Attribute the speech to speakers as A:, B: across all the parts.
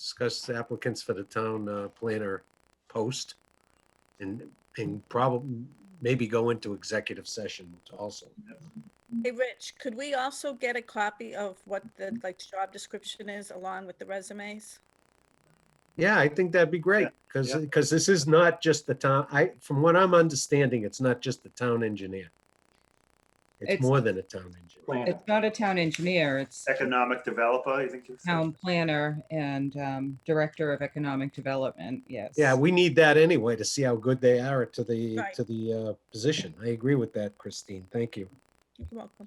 A: discuss applicants for the town uh, planner post. And, and probably, maybe go into executive session also.
B: Hey, Rich, could we also get a copy of what the, like, job description is along with the resumes?
A: Yeah, I think that'd be great, because,
C: Yeah.
A: because this is not just the town, I, from what I'm understanding, it's not just the town engineer. It's
D: It's-
A: more than a town engineer.
C: Planner.
D: It's not a town engineer, it's
C: Economic developer, you think? you said?
D: town planner and um, director of economic development, yes.
A: Yeah, we need that anyway to see how good they are to the,
B: Right.
A: to the uh, position. I agree with that, Christine. Thank you.
B: You're welcome.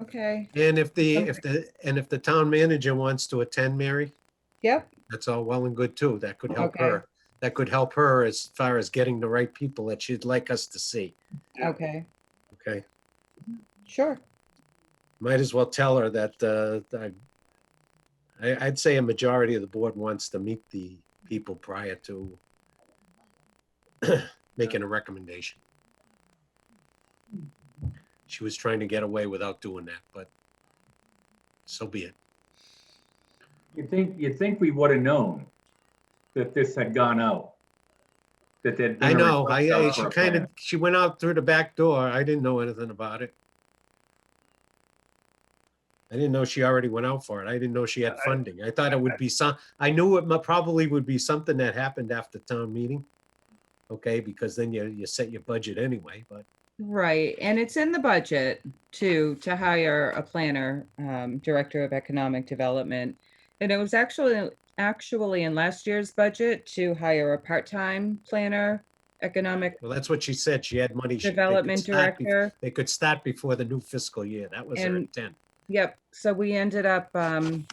D: Okay,
A: And if the, if the, and if the town manager wants to attend, Mary,
D: yep,
A: that's all well and good too. That could help
D: Okay.
A: her. That could help her as far as getting the right people that she'd like us to see.
C: Yeah.
D: okay,
A: Okay,
D: sure.
A: might as well tell her that, uh, I- I, I'd say a majority of the board wants to meet the people prior to making a recommendation. She was trying to get away without doing that, but so be it.
E: You'd think, you'd think we would have known that this had gone out. That there'd been.
A: I
E: a
A: know, I,
E: request out
A: I-
E: for
A: she
E: a
A: kind of,
E: plan.
A: she went out through the back door. I didn't know anything about it. I didn't know she already went out for it. I didn't know she had
C: I-
A: funding. I thought it would be some, I knew it mu- probably would be something that happened after town meeting. Okay, because then you, you set your budget anyway, but
D: Right, and it's in the budget to, to hire a planner, um, Director of Economic Development. And it was actually, actually in last year's budget to hire a part-time planner, economic
A: well, that's what she said. She had money. she- they could
D: development
A: start be-
D: director.
A: They could start before the new fiscal year. That was her
D: And-
A: intent.
D: Yep, so we ended up um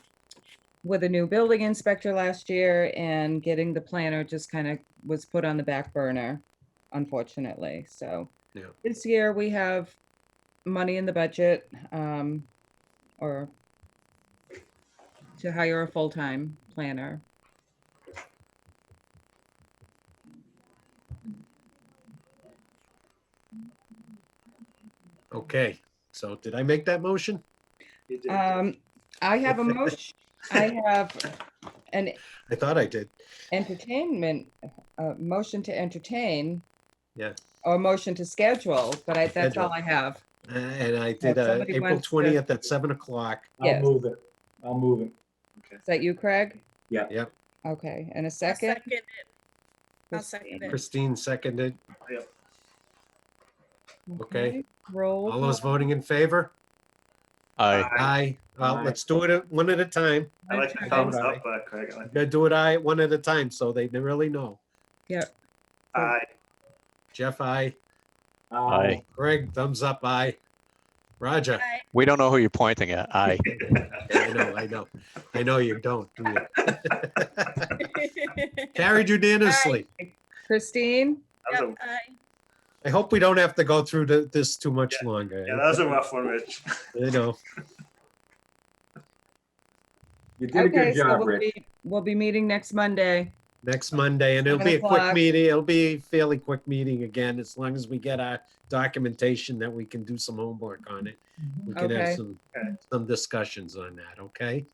D: with a new building inspector last year and getting the planner just kind of was put on the back burner, unfortunately, so.
A: Yeah.
D: This year we have money in the budget um or to hire a full-time planner.
A: Okay, so did I make that motion?
C: You did.
D: Um, I have a motion, I have an
A: I thought I did.
D: entertainment, uh, motion to entertain.
A: Yeah.
D: Or motion to schedule, but I, that's all
A: Schedule.
D: I have.
A: Uh, And I did uh,
D: somebody
A: April
D: wants to-
A: 20th at 7 o'clock.
D: Yes.
E: I'll move it. I'll move it.
D: Is that you, Craig?
E: Yeah.
A: Yep.
D: Okay, and a
B: I'll
D: second?
B: it. I'll second
D: Christine?
B: it.
A: Christine seconded. Okay.
D: Roll.
A: All those
D: call.
A: voting in favor?
F: Aye.
C: I
A: Aye. Well,
E: Aye.
A: let's do it at- one at a time.
C: I like the
D: Okay.
C: thumbs
A: Aye.
C: up, uh, Craig. I like-
A: Gotta do it aye, one at a time, so they really know.
C: Aye.
A: Jeff, aye.
E: Um,
F: Aye.
A: Greg, thumbs up, aye. Roger,
B: Aye.
F: We don't know who you're pointing at. Aye.
A: I know, I know. I know you don't, do you? Carried unanimously.
D: Christine?
C: That was
B: Yep,
C: a-
B: aye.
A: I hope we don't have to go through th- this too much longer.
C: Yeah, that was a rough one, Rich.
A: You know,
E: You did a
D: Okay,
E: good
D: so
E: job,
D: we'll
E: Rich.
D: be- We'll be meeting next Monday.
A: next Monday, and it'll
D: Seven
A: be a quick
D: o'clock.
A: meeting. It'll be a fairly quick meeting again, as long as we get our documentation that we can do some homework on it. We can
D: Okay.
A: have some,
C: Okay.
A: some discussions on that, okay?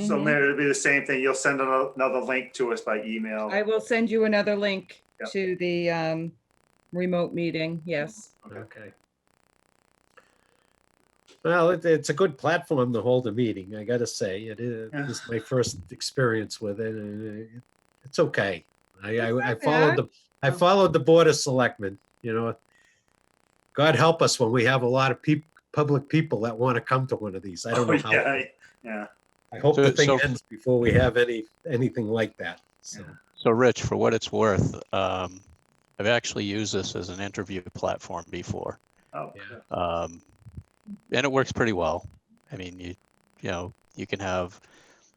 C: So
D: Mhm.
C: Mary, it'll be the same thing. You'll send ano- another link to us by email.
D: I will send you another link
C: Yeah.
D: to the um remote meeting, yes.
A: Okay. Well, it, it's a good platform to hold a meeting, I gotta say. It is,
C: Yeah.
A: this is my first experience with it, and it- it's okay. I,
D: It's
A: I, I
D: not bad.
A: followed the, I followed the Board of Selectmen, you know. God help us when we have a lot of peop, public people that want to come to one of these. I don't know how.
C: Oh, Yeah, yeah.
A: I hope
F: So-
A: the thing
F: so-
A: ends before we have any, anything like that, so.
C: Yeah.
F: So, Rich, for what it's worth, um, I've actually used this as an interview platform before,
C: Oh,
A: Yeah.
C: good.
F: um, and it works pretty well. I mean, you you know you can have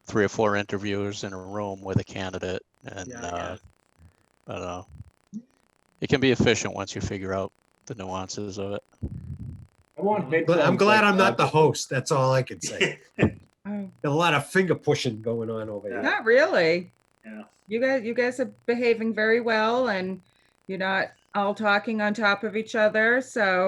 F: three or four interviewers in a room with a candidate, and
A: Yeah,
F: uh, I don't know. It can be efficient once you figure out the nuances of it.
E: I want big
A: Mhm. But I'm
E: thumbs
A: glad
E: up,
A: I'm not the
E: Roger.
A: host, that's all I can say.
D: Oh,
A: a lot of finger pushing going on over here.
D: Not really.
C: Yeah.
D: You guys, you guys are behaving very well and you're not all talking on top of each other, so